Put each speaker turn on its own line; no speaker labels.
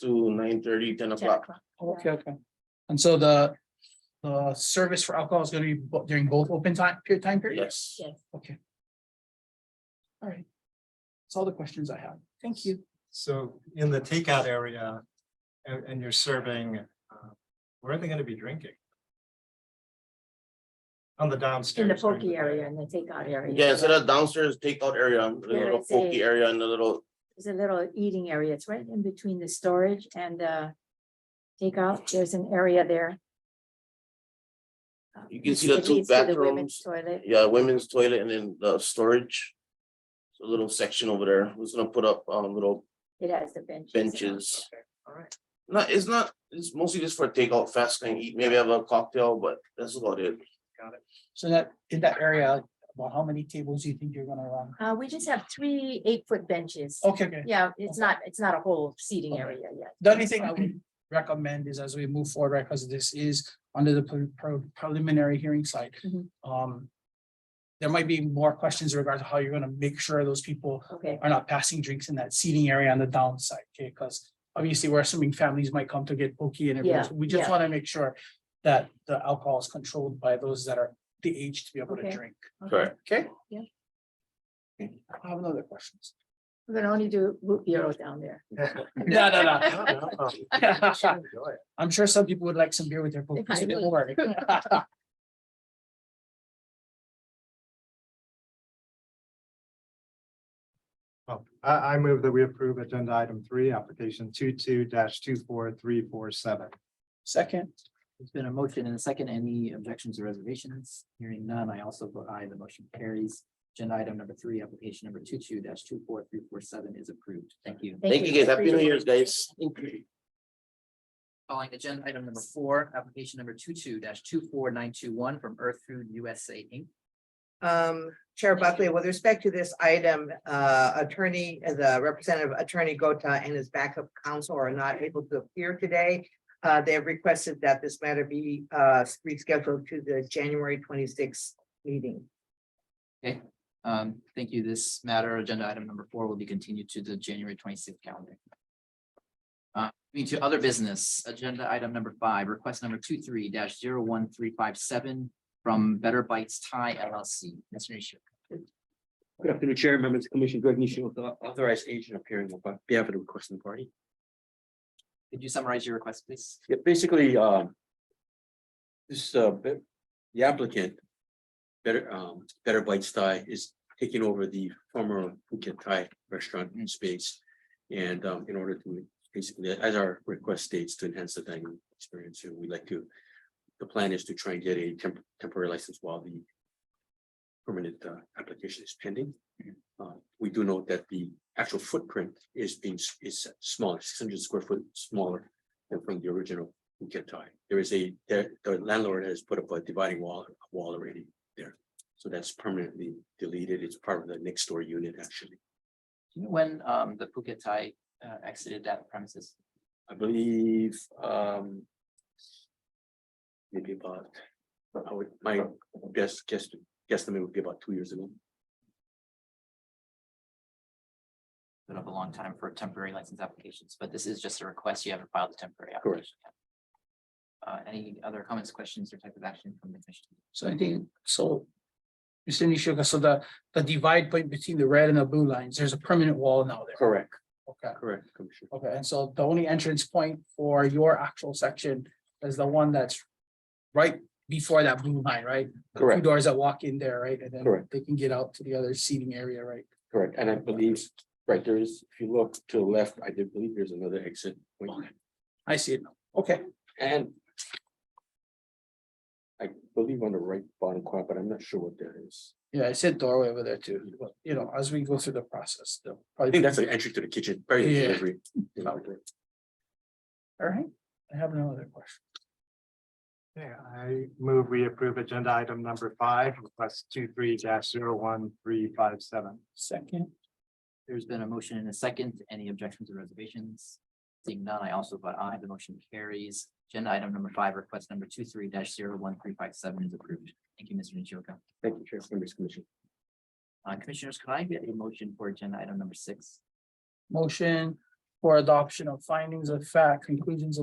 to nine thirty, ten o'clock.
Okay, okay. And so the, the service for alcohol is gonna be bo- during both open time, period, time period?
Yes,
Yes.
Okay. All right. That's all the questions I have. Thank you.
So in the takeout area, and, and you're serving, uh, where are they gonna be drinking? On the downstairs.
In the
during
pokey
day.
area and the takeout area.
yeah, instead of downstairs takeout area, a little
it's
pokey
a-
area and a little,
There's a little eating area. It's right in between the storage and the takeout. There's an area there.
You can see the
It
two
leads to the women's
bathrooms.
Toilet.
yeah, women's toilet and then the storage. So A little section over there, we're just gonna put up um little
It has the benches. and all.
benches.
All right.
No, it's not, it's mostly just for takeout, fast and eat, maybe have a cocktail, but that's about it.
So that, in that area, about how many tables do you think you're gonna run?
Uh, we just have three eight-foot benches.
Okay, Oh, okay.
Yeah, it's not, it's not a whole seating
Okay.
area yet. Oh,
The only thing I would recommend is as we move forward, right, because this is under the pre- pre- preliminary hearing side.
Mhm.
Um. There might be more questions regarding how you're gonna make sure those people
Okay,
are not passing drinks in that seating area on the downside, okay, because obviously we're assuming families might come to get pokey and everything.
Yeah,
so We just
yeah.
want to make sure that the alcohol is controlled by those that are the age to be able to
Okay.
drink,
Correct.
okay?
Yeah.
Okay, I have another question.
we're gonna only do root beer down there.
No, no, no.
No, no, no, you should enjoy it.
I'm sure some people would like some beer with their pokey, so
I
don't
would.
worry.
Well, I, I move that we approve agenda item three, application two, two dash two, four, three, four, seven.
Second,
There's been a motion and a second. Any objections or reservations? Hearing none, I also vote aye. The motion carries. Agenda item number three, application number two-two dash two-four-three-four-seven is approved. Thank you.
Thank you guys, happy new year's, guys.
Calling agenda item number four, application number two-two dash two-four-nine-two-one from Earth Food USA Inc.
Um, Chair Buckley, with respect to this item, uh, attorney, the representative attorney Gota and his backup counsel are not able to appear today. Uh, they have requested that this matter be, uh, rescheduled to the January twenty-sixth meeting.
Um, thank you. This matter, agenda item number four will be continued to the January twenty-sixth calendar. Uh, moving to other business, agenda item number five, request number two-three dash zero-one-three-five-seven from Better Bites Thai LLC. Mr. Nishio.
Good afternoon, Chair, members of the Commission, Greg Nishio, with the authorized agent appearing on behalf of the requesting party.
Could you summarize your request, please?
Yeah, basically, um. This, uh, be- the applicant. Better, um, Better Bites Thai is taking over the former Phuket Thai restaurant space. And, um, in order to, basically, as our request states to enhance the dining experience, and we'd like to. The plan is to try and get a temp- temporary license while the. Permanent, uh, application is pending. Uh, we do note that the actual footprint is being, s- is smaller, six hundred square foot smaller than from the original Phuket Thai. There is a, there- the landlord has put up a dividing wall, wall already there. So that's permanently deleted. It's part of the next door unit, actually.
Do you know when um the Phuket Thai uh exited that premises?
I believe, um. Maybe about, I would, my guess, guess, guesstimate would be about two years ago.
Been up a long time for temporary license applications, but this is just a request. You haven't filed the temporary.
Correct.
application yet. Uh, any other comments, questions, or type of action from the commission?
so I think, so. Mr. Nishoka, so the, the divide point between the red and the blue lines, there's a permanent wall now there.
Correct,
Okay,
correct, Commissioner.
okay, and so the only entrance point for your actual section is the one that's right before that blue line, right? The Two
Correct.
doors that walk in there, right? And then
Correct.
they can get out to the other seating area, right?
Correct. And I believe, right, there is, if you look to the left, I do believe there's another exit. point.
I see it now. Okay,
And. I believe on the right bottom corner, but I'm not sure what that is.
yeah, I said doorway over there too, Well, you know, as we go through the process, they'll probably.
I think that's an entry to the kitchen, very
Yeah.
delivery.
All right, I have no other question.
Yeah, I move we approve agenda item number five, request two, three dash zero, one, three, five, seven.
Second.
There's been a motion and a second. Any objections or reservations? Seeing none, I also vote aye. The motion carries. Agenda item number five, request number two three dash zero one three five seven is approved. Thank you, Mr. Nishioka.
Thank you, Chair, members, commission.
Uh, commissioners, could I get a motion for agenda item number six?
Motion for adoption of findings of fact, conclusions of